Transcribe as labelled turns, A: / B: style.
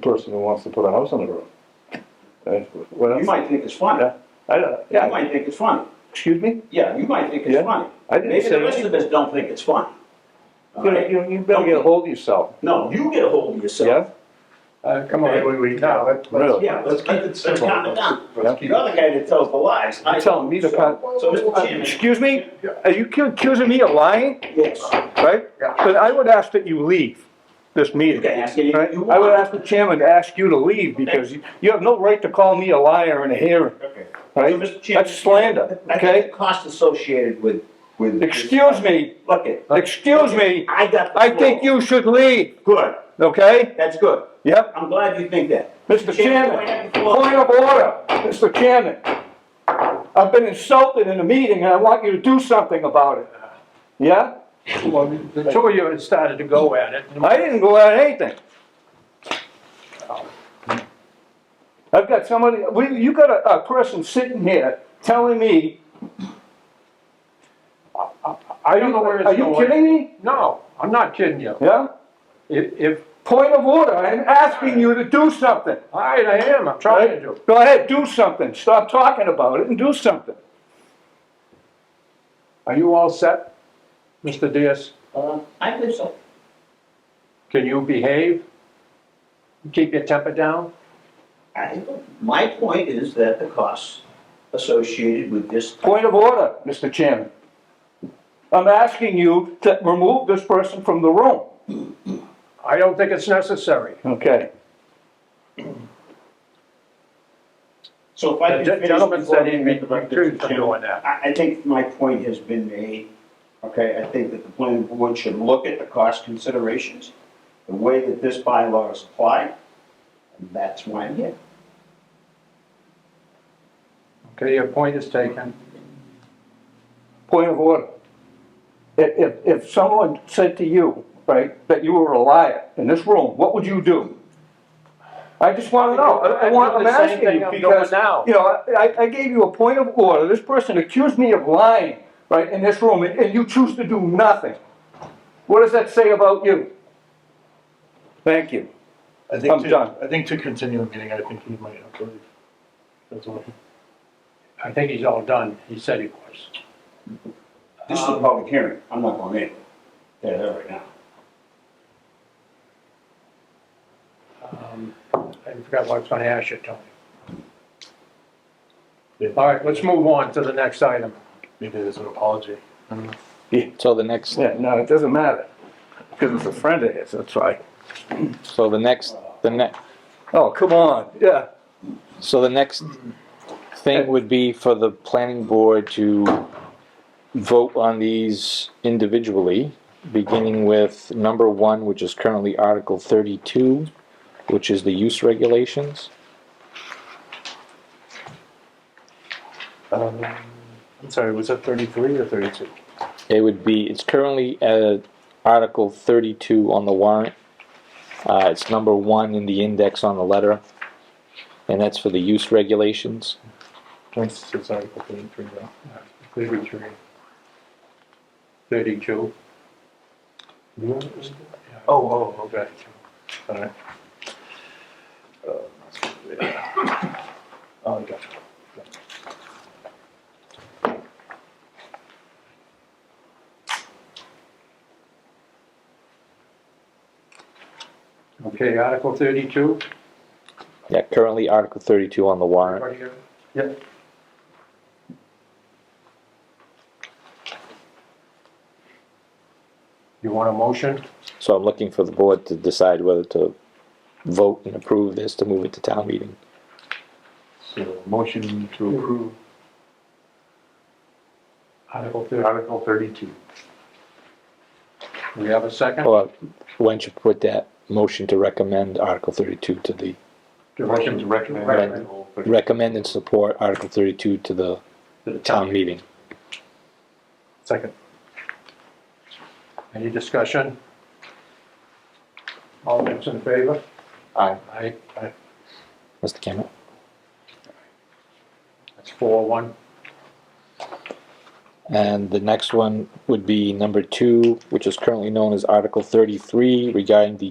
A: person who wants to put a house on the road. Uh, Well,
B: You might think it's funny.
A: Yeah, I, don't-
B: You
A: yeah,
B: might think it's funny.
A: excuse me?
B: Yeah, you might think
A: Yeah.
B: it's funny.
A: I didn't
B: Maybe
A: say
B: the rest
A: any-
B: of us don't think it's funny. Uh,
A: You, know, you- you better get a hold of yourself,
B: No, you get a hold of
A: yeah?
B: yourself.
C: Uh, come on, we, we, no, let- let's.
A: Really?
B: Yeah, let's keep it simple. Let's calm it down.
C: Let's keep
B: You're the
C: it.
B: guy that tells the lies. I
A: You're telling me to
B: don't,
A: cut- uh,
B: So, so, Mr. Chairman.
A: Excuse me? Are you cu- accusing me of lying,
B: Yes.
A: right?
C: Yeah.
A: But I would ask that you leave this meeting.
B: You can ask anything
A: right?
B: you
A: I would
B: want.
A: ask the chairman to ask you to leave because you, you have no right to call me a liar in a hearing,
B: Okay. So,
A: right?
B: Mr. Chairman.
A: That's slander,
B: I think
A: okay?
B: the cost associated with, with.
A: Excuse me,
B: Look it.
A: excuse me,
B: I got the
A: I think
B: floor.
A: you should leave,
B: Good.
A: okay?
B: That's good.
A: Yep,
B: I'm glad you think that.
A: Mr.
B: go ahead
A: Chairman,
B: and floor.
A: point of order, Mr. Chairman. I've been insulted in a meeting and I want you to do something about it. Yeah?
C: Well, the two of you had started to go at it.
A: I didn't go at anything. I've got somebody, we, you got a, a person sitting here telling me,
C: I don't know where it's
A: are
C: going.
A: you kidding me?
C: No, I'm not kidding you.
A: Yeah?
C: If, if,
A: Point of order, I'm asking you to do something.
C: all right, I am, I'm trying to do.
A: Go ahead, do something. Stop talking about it and do something.
C: Are you all set, Mr. Diaz?
B: Uh, I think so.
C: Can you behave? Keep your temper down?
B: I, my point is that the costs associated with this,
A: Point of order, Mr. Chairman. I'm asking you to remove this person from the room.
C: I don't think it's necessary.
A: Okay.
B: so if I
C: The
B: could
C: gen-
B: finish
C: gentleman
B: before
C: said he
B: you make the
C: refused
B: record,
C: from
B: Mr. Chairman.
C: doing that.
B: I, I think my point has been made, okay? I think that the planning board should look at the cost considerations, the way that this bylaw is applied, and that's why I'm here.
C: Okay, your point is taken.
A: Point of order. If, if, if someone said to you, right, that you were a liar in this room, what would you do? I just wanna know, I I want, I'm
C: I'd do the same
A: asking
C: thing
A: you
C: I'm doing
A: because,
C: now.
A: you know, I, I gave you a point of order, this person accused me of lying, right, in this room, and, and you choose to do nothing. What does that say about you? Thank you.
D: I
A: I'm
D: think
A: done.
D: to, I think to continue the meeting, I think he might have to leave. That's all.
C: I think he's all done. He said he was.
B: This is a public hearing, I'm not going in. They're there right now.
C: Um, I forgot what I was gonna ask you, Tony. All right, let's move on to the next item.
D: Maybe there's an apology. I don't know.
E: So the next,
A: Yeah, no, it doesn't matter, because it's a friend of his, that's why.
E: so the next, the next,
A: Oh, come on, yeah.
E: so the next thing would be for the planning board to vote on these individually, beginning with number one, which is currently Article thirty-two, which is the use regulations.
D: Um, I'm sorry, was that thirty-three or thirty-two?
E: It would be, it's currently uh Article thirty-two on the warrant. Uh, it's number one in the index on the letter, and that's for the use regulations.
D: Constitutes Article thirty-three, though.
C: Thirty-three. Thirty-two.
D: Oh, oh, okay. All right. Uh, Oh, I gotcha.
C: Okay, Article thirty-two.
E: Yeah, currently Article thirty-two on the warrant.
C: Everybody got it? Yep. You want a motion?
E: So I'm looking for the board to decide whether to vote and approve this to move it to town meeting.
D: So, motion to approve
C: Article thirty.
D: Article thirty-two. Oh.
C: We have a second?
E: Or why don't you put that motion to recommend Article thirty-two to the,
D: Motion to recommend
C: Right.
D: Article 32.
E: recommend and support Article thirty-two to the town meeting.
D: Second.
C: Any discussion? All those in favor?
D: Aye.
C: Aye. Aye.
E: Mr. Cameron?
C: That's four, one.
E: And the next one would be number two, which is currently known as Article thirty-three regarding the